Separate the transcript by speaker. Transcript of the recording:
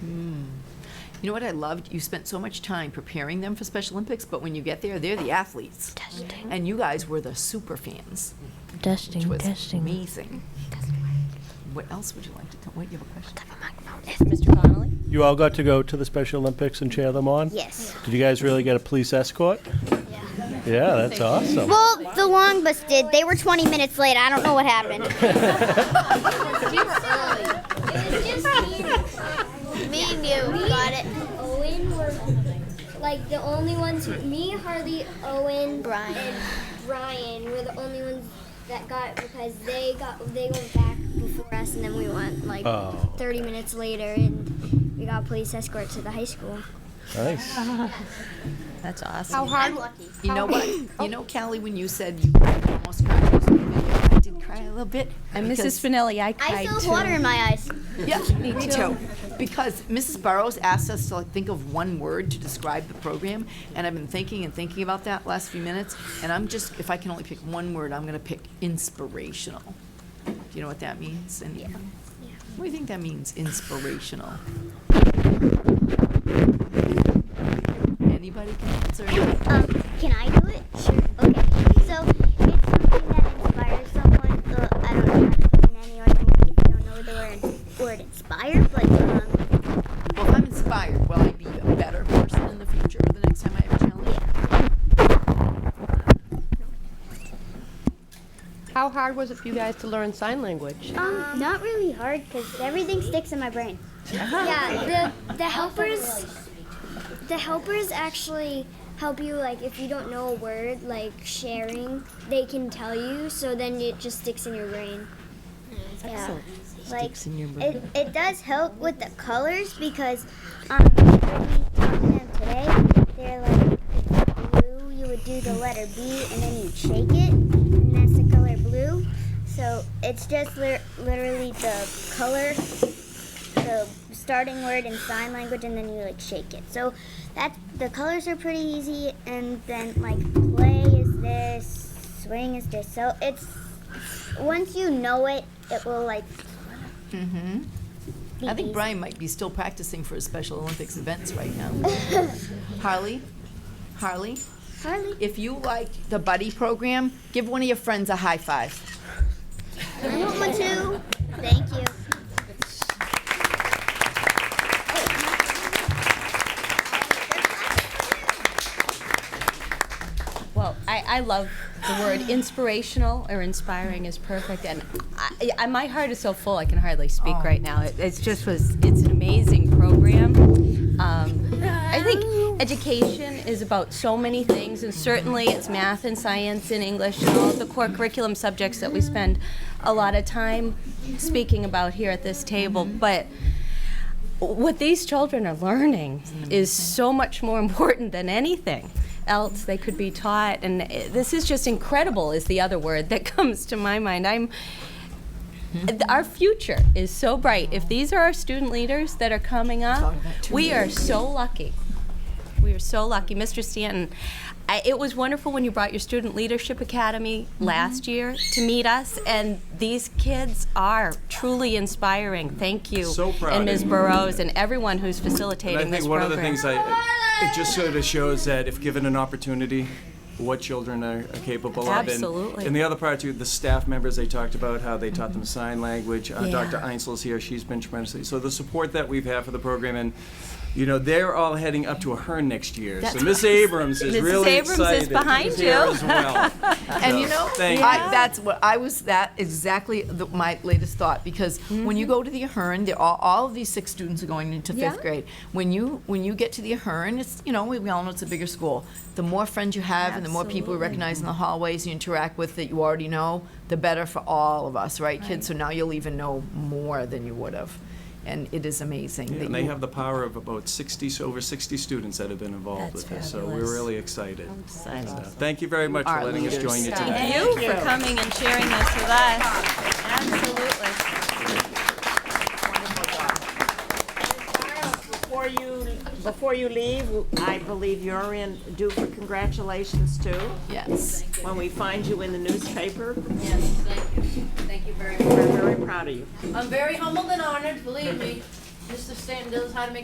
Speaker 1: Mm. You know what I loved? You spent so much time preparing them for Special Olympics, but when you get there, they're the athletes.
Speaker 2: Testing.
Speaker 1: And you guys were the super fans, which
Speaker 2: Testing,
Speaker 1: was
Speaker 2: testing.
Speaker 1: amazing. What else would you like to tell? Wait, you have a question?
Speaker 3: Yes, Mr. Connolly?
Speaker 4: You all got to go to the Special Olympics and cheer them on?
Speaker 5: Yes.
Speaker 4: Did you guys really get a police escort? Yeah. Yeah, that's awesome.
Speaker 5: Well, the long bus did. They were 20 minutes late. I don't know what happened.
Speaker 6: Me and you got it. Owen were like the only ones. Me, Harley, Owen, Brian, and Brian were the only ones that got it because they got they went back before us, and then we went like
Speaker 4: Oh.
Speaker 6: 30 minutes later, and we got police escort to the high school.
Speaker 4: Nice.
Speaker 3: That's awesome.
Speaker 1: How hard? You know what? You know, Callie, when you said you almost cried, I was like, "Yeah, I did cry a little bit.
Speaker 3: And
Speaker 1: because-
Speaker 3: Mrs. Finelli, I
Speaker 5: I
Speaker 3: cried
Speaker 5: still have
Speaker 3: too.
Speaker 5: water in my eyes.
Speaker 1: Yeah, me too. Because Mrs. Burrows asked us to like think of one word to describe the program, and I've been thinking and thinking about that last few minutes, and I'm just, if I can only pick one word, I'm gonna pick inspirational. Do you know what that means? Yeah. What do you think that means, inspirational? Anybody can answer?
Speaker 6: Um, can I do it? Sure. Okay. So it's something that inspires someone. So I don't know how to explain any or if you don't know the word word inspire, but um,
Speaker 1: Well, if I'm inspired, will I be a better person in the future the next time I have a challenge?
Speaker 7: How hard was it for you guys to learn sign language?
Speaker 6: um not really hard because everything sticks in my brain.
Speaker 1: Uh-huh.
Speaker 6: yeah. The the helpers the helpers actually help you like if you don't know a word like sharing they can tell you so then it just sticks in your brain.
Speaker 5: Yeah.
Speaker 6: Like
Speaker 1: Sticks in your brain.
Speaker 6: it, it does help with the colors because um when we taught them today they're like blue you would do the letter B and then you'd shake it and that's the color blue. So it's just lit literally the color the starting word in sign language and then you like shake it. So that the colors are pretty easy and then like play is this, swing is this. So it's once you know it, it will like be
Speaker 1: I think
Speaker 6: easy.
Speaker 1: Brian might be still practicing for his Special Olympics events right now. Harley, Harley,
Speaker 6: Harley.
Speaker 1: if you like the buddy program, give one of your friends a high five.
Speaker 6: I want one too. Thank you.
Speaker 3: Well, I, I love the word inspirational or inspiring is perfect, and I, I, my heart is so full I can hardly speak
Speaker 1: Oh.
Speaker 3: right now. It, it's just was it's an amazing program. Um, I think education is about so many things, and certainly it's math and science and English and all the core curriculum subjects that we spend a lot of time speaking about here at this table, but what these children are learning is so much more important than anything else they could be taught and eh, this is just incredible is the other word that comes to my mind i'm th- our future is so bright if these are our student leaders that are coming up we are so lucky we are so lucky mr stanton I, it was wonderful when you brought your student leadership academy last year to meet us and these kids are truly inspiring thank you
Speaker 8: So proud
Speaker 3: and
Speaker 8: of
Speaker 3: ms
Speaker 8: you.
Speaker 3: burrows and everyone who's facilitating
Speaker 8: And I
Speaker 3: this
Speaker 8: think one of
Speaker 3: program
Speaker 8: the things I, it just sort of shows that if given an opportunity, what children are, are capable of.
Speaker 3: Absolutely. Mm-hmm.
Speaker 8: And, and the other part too, the staff members they talked about how they taught them sign language. Uh,
Speaker 3: Yeah.
Speaker 8: Dr. Einzel's here; she's been tremendously. So the support that we've had for the program and. You know they're all heading up to a HERN next year,
Speaker 1: That's
Speaker 8: so Miss Abrams is
Speaker 3: Mrs.
Speaker 8: really
Speaker 3: Abrams is
Speaker 8: excited.
Speaker 3: behind
Speaker 8: She's here
Speaker 3: you.
Speaker 8: as well.
Speaker 1: And
Speaker 8: So,
Speaker 1: you know,
Speaker 8: thank you.
Speaker 1: I, that's what I was. That exactly the, my latest thought because when you go to the Ahern, they're all, all of these six students are going into fifth
Speaker 3: Yeah.
Speaker 1: grade. When you when you get to the Ahern, it's you know we, we all know it's a bigger school. The more friends you have and the more people you recognize in the hallways you interact with that you already know, the better for all of us, right, kids? So now you'll even know more than you would have, and it is amazing.
Speaker 8: Yeah,
Speaker 1: that
Speaker 8: and they
Speaker 1: you-
Speaker 8: have the power of about 60, so over 60 students that have been involved
Speaker 3: That's
Speaker 8: with this. So
Speaker 3: fabulous.
Speaker 8: we're really excited. So Thank you very much
Speaker 1: are
Speaker 8: for letting us
Speaker 1: leaders.
Speaker 8: join you today.
Speaker 3: Thank you for coming and sharing this with us. Absolutely.
Speaker 9: Before you, before you leave, I believe you're in due for congratulations too.
Speaker 1: yes.
Speaker 9: When we find you in the newspaper,
Speaker 10: Yes, thank you. Thank you very much.
Speaker 9: we're very proud of you.
Speaker 10: I'm very humbled and honored, believe me. Mr. Stanton knows how to make